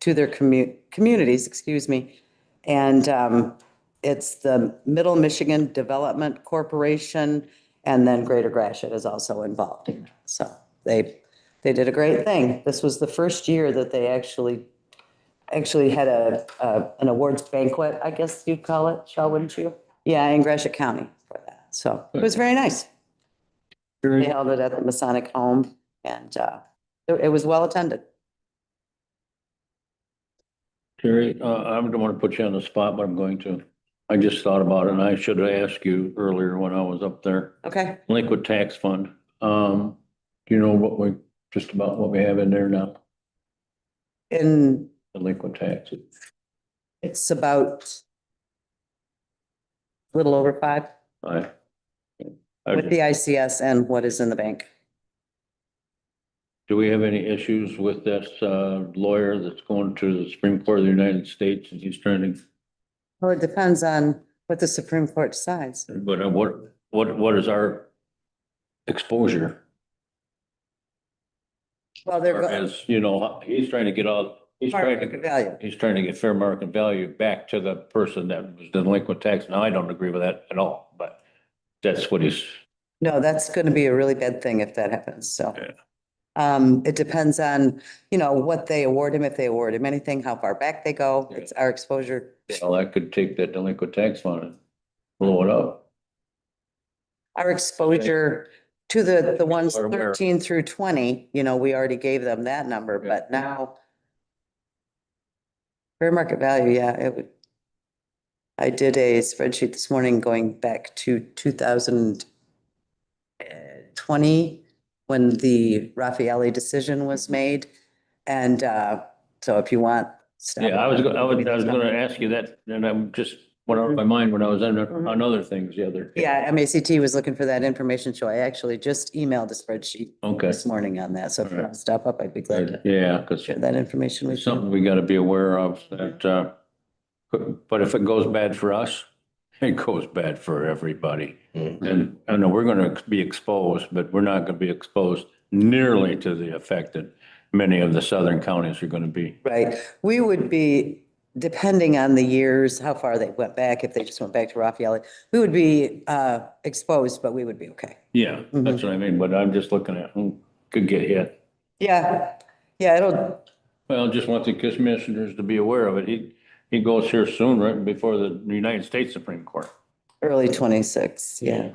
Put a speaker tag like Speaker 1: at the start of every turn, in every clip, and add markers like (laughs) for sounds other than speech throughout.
Speaker 1: to their commu- communities, excuse me. And um, it's the Middle Michigan Development Corporation and then Greater Gratiot is also involved. So they, they did a great thing. This was the first year that they actually, actually had a, a- an awards banquet, I guess you'd call it, Shell, wouldn't you? Yeah, in Gratiot County for that. So it was very nice. They held it at the Masonic Home and uh, it it was well attended.
Speaker 2: Terry, uh, I don't want to put you on the spot, but I'm going to. I just thought about it and I should have asked you earlier when I was up there.
Speaker 1: Okay.
Speaker 2: Liquid tax fund. Um, do you know what we, just about what we have in there now?
Speaker 1: And
Speaker 2: The liquid tax.
Speaker 1: it's about a little over five
Speaker 2: I. I
Speaker 1: with the ICS and what is in the bank.
Speaker 2: Do we have any issues with this uh, lawyer that's going to the Supreme Court of the United States and he's trying to,
Speaker 1: Well, it depends on what the Supreme Court decides.
Speaker 2: but uh, what, what, what is our exposure?
Speaker 1: Well, they're.
Speaker 2: Or
Speaker 1: go-
Speaker 2: As, you know, he's trying to get all, he's
Speaker 1: Fair
Speaker 2: trying
Speaker 1: market
Speaker 2: to,
Speaker 1: value.
Speaker 2: he's trying to get fair market value back to the person that was delinquent tax. Now, I don't agree with that at all, but that's what he's,
Speaker 1: No, that's going to be a really bad thing if that happens, so.
Speaker 2: Yeah.
Speaker 1: Um, it depends on, you know, what they award him, if they award him anything, how far back they go.
Speaker 2: Yeah.
Speaker 1: It's our exposure.
Speaker 2: well, I could take that delinquent tax fund and blow it up.
Speaker 1: Our exposure to the, the ones
Speaker 2: Or where-
Speaker 1: thirteen through twenty, you know, we already gave them that number,
Speaker 2: Yeah.
Speaker 1: but now. Fair market value, yeah, it would. I did a spreadsheet this morning going back to two thousand twenty, when the Raffaelli decision was
Speaker 2: Mm-hmm.
Speaker 1: made. And, uh, so if you want. stop
Speaker 2: Yeah, I was,
Speaker 1: it.
Speaker 2: go- I was, I was gonna ask you that, and I'm just, went out of my mind when I was on,
Speaker 1: Mhm.
Speaker 2: on other things the other.
Speaker 1: Mm-hmm.
Speaker 2: day.
Speaker 1: Yeah, MACT was looking for that information, so I actually just emailed a spreadsheet
Speaker 2: Okay,
Speaker 1: this morning on that, so if you
Speaker 2: Alright.
Speaker 1: want to stop up, I'd be glad to
Speaker 2: yeah, cause
Speaker 1: share that information with
Speaker 2: it's
Speaker 1: you.
Speaker 2: something we gotta be aware of that, uh, but- but if it goes bad for us, (laughs) it goes bad for everybody.
Speaker 3: Mhm.
Speaker 2: And I know we're gonna be exposed, but we're not gonna be exposed nearly to the effect that many of the southern counties are gonna be.
Speaker 1: Right, we would be, depending on the years, how far they went back, if they just went back to Raffaele, we would be uh, exposed, but we would be okay.
Speaker 2: Yeah, that's what I mean, but I'm just looking at who could get hit.
Speaker 1: Yeah, yeah, it'll,
Speaker 2: Well, just want the commissioners to be aware of it. He, he goes here soon, right before the United States Supreme Court.
Speaker 1: early 26, yeah.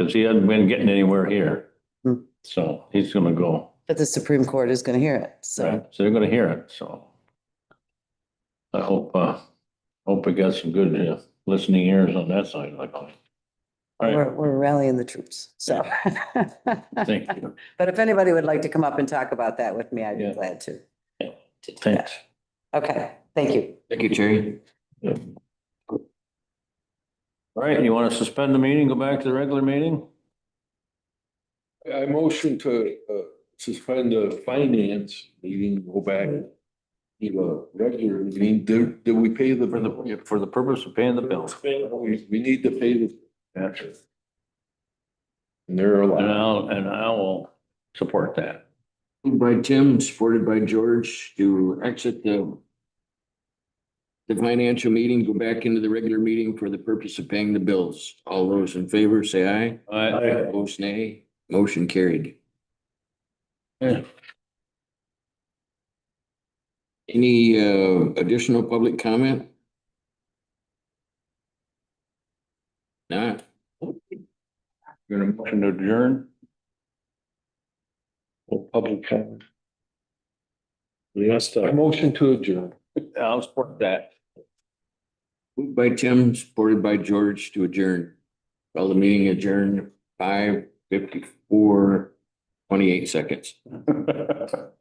Speaker 2: Cause he hasn't been getting anywhere here.
Speaker 1: Hmm.
Speaker 2: So he's gonna go.
Speaker 1: But the Supreme Court is going to hear it,
Speaker 2: Right,
Speaker 1: so.
Speaker 2: so they're gonna hear it, so. I hope, uh, hope we got some good uh, listening ears on that side, like. All right,
Speaker 1: We're we're rallying the troops, so.
Speaker 2: thank you,
Speaker 1: (laughs) But if anybody would like to come up and talk about that with me, I'd be
Speaker 2: Yeah.
Speaker 1: glad to. to do
Speaker 2: thanks.
Speaker 1: that. Okay, thank you.
Speaker 3: Thank you, Jerry.
Speaker 2: All right, you wanna suspend the meeting, go back to the regular meeting?
Speaker 4: I motion to uh, suspend the finance meeting, go back. Need a regular meeting, do, do we pay the?
Speaker 2: For the, for the purpose of paying the bills.
Speaker 4: We, we need to pay the.
Speaker 2: And
Speaker 4: And there are a lot.
Speaker 2: I'll, and I will support that.
Speaker 3: Moved by Tim, supported by George to exit the the financial meeting, go back into the regular meeting for the purpose of paying the bills. All those in favor, say aye.
Speaker 2: I,
Speaker 3: Opposed, nay. Motion carried.
Speaker 2: Yeah.
Speaker 3: Any uh, additional public comment? Not?
Speaker 2: gonna motion to adjourn? public comment. uh,
Speaker 4: Yes. I motion to adjourn.
Speaker 2: I'll support that. (laughs)
Speaker 3: Moved by Tim, supported by George to adjourn. Call the meeting adjourned five fifty-four, twenty-eight seconds.
Speaker 2: All